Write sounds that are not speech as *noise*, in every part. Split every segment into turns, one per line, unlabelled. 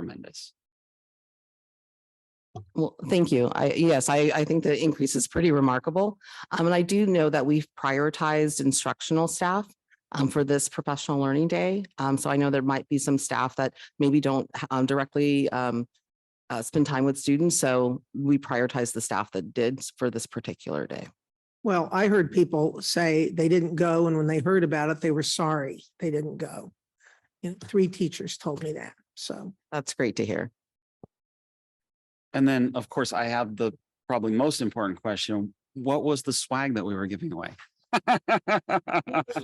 tremendous.
Well, thank you. I, yes, I, I think the increase is pretty remarkable. Um, and I do know that we've prioritized instructional staff um, for this professional learning day. Um, so I know there might be some staff that maybe don't um, directly um, uh, spend time with students. So we prioritize the staff that did for this particular day.
Well, I heard people say they didn't go, and when they heard about it, they were sorry they didn't go. You know, three teachers told me that, so.
That's great to hear.
And then, of course, I have the probably most important question. What was the swag that we were giving away? *laughs*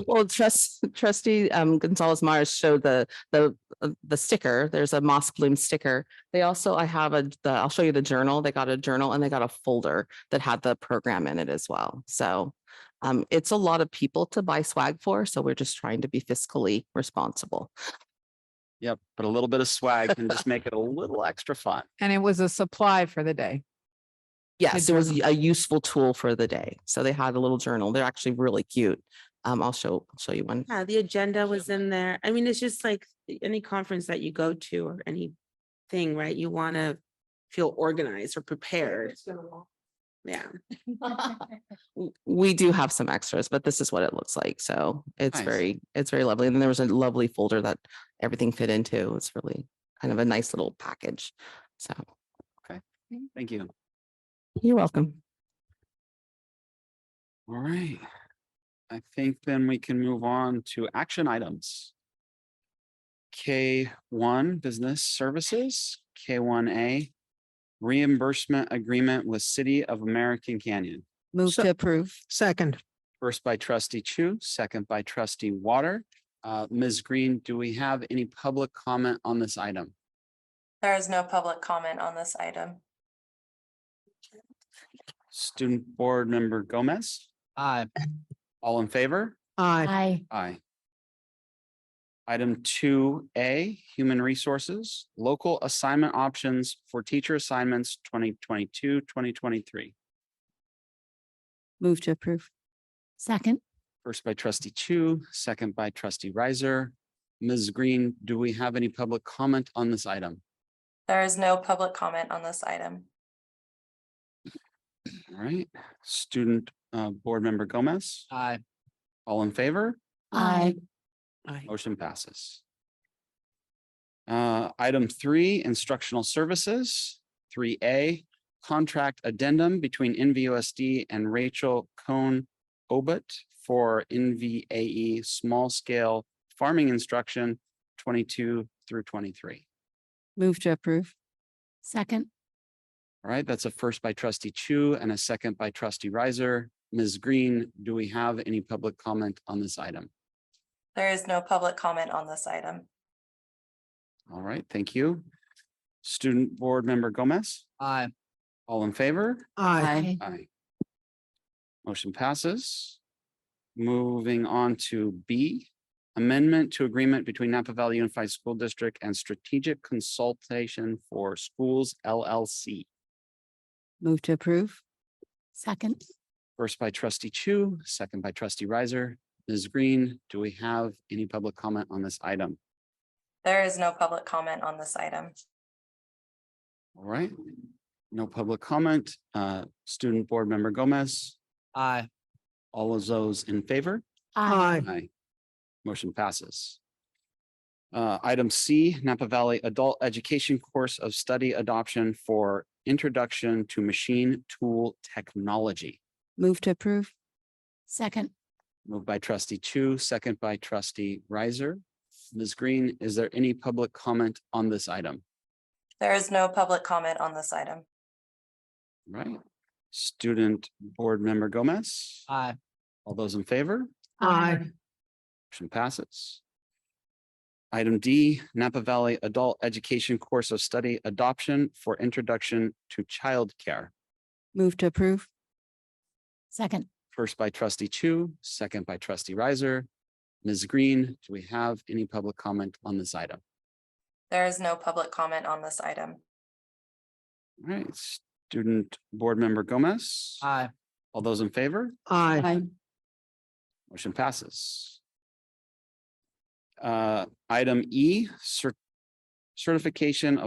Well, trust, trustee um, Gonzalez Myers showed the, the, uh, the sticker. There's a moss bloom sticker. They also, I have a, the, I'll show you the journal. They got a journal and they got a folder that had the program in it as well. So um, it's a lot of people to buy swag for, so we're just trying to be fiscally responsible.
Yep, but a little bit of swag can just make it a little extra fun.
And it was a supply for the day.
Yes, it was
journal.
a useful tool for the day. So they had a little journal. They're actually really cute. Um, I'll show, I'll show you one.
Yeah, the agenda was in there. I mean, it's just like any conference that you go to or any thing, right? You want to feel organized or prepared. Yeah.
w- we do have some extras, but this is what it looks like. So it's
Nice.
very, it's very lovely. And then there was a lovely folder that everything fit into. It's really kind of a nice little package. So
Thank you.
you're welcome.
All right. I think then we can move on to action items. K one, business services, K one A. Reimbursement agreement with City of American Canyon,
Move
So-
to approve.
Second,
first by trustee Chu, second by trustee Water. Uh, Ms. Green, do we have any public comment on this item?
There is no public comment on this item.
Student Board Member Gomez? Aye. All in favor?
aye.
Aye.
Aye. Item two A, Human Resources, Local Assignment Options for Teacher Assignments 2022-2023.
Move to approve.
Second.
First by trustee Chu, second by trustee Riser. Ms. Green, do we have any public comment on this item?
There is no public comment on this item.
All right, student, uh, board member Gomez? Aye. All in favor?
Aye.
Motion passes. Uh, item three, instructional services, three A, contract addendum between NVUSD and Rachel Cohn Obit for NVAE E small scale farming instruction twenty-two through twenty-three.
Move to approve.
Second.
All right, that's a first by trustee Chu and a second by trustee Riser. Ms. Green, do we have any public comment on this item?
There is no public comment on this item.
All right, thank you. Student Board Member Gomez? Aye. All in favor?
Aye.
Aye. Motion passes. Moving on to B, amendment to agreement between Napa Valley Unified School District and Strategic Consultation for Schools LLC.
Move to approve.
Second.
First by trustee Chu, second by trustee Riser. Ms. Green, do we have any public comment on this item?
There is no public comment on this item.
All right, no public comment. Uh, student board member Gomez. Aye. All of those in favor?
Aye.
Aye. Motion passes. Uh, item C, Napa Valley Adult Education Course of Study Adoption for Introduction to Machine Tool Technology.
Move to approve.
Second.
Moved by trustee Chu, second by trustee Riser. Ms. Green, is there any public comment on this item?
There is no public comment on this item.
Right? Student Board Member Gomez? Aye. All those in favor?
Aye.
Motion passes. Item D, Napa Valley Adult Education Course of Study Adoption for Introduction to Childcare.
Move to approve.
Second.
First by trustee Chu, second by trustee Riser. Ms. Green, do we have any public comment on this item?
There is no public comment on this item.
All right, student board member Gomez. Aye. All those in favor?
Aye.
Aye.
Motion passes. Uh, item E, cer- certification of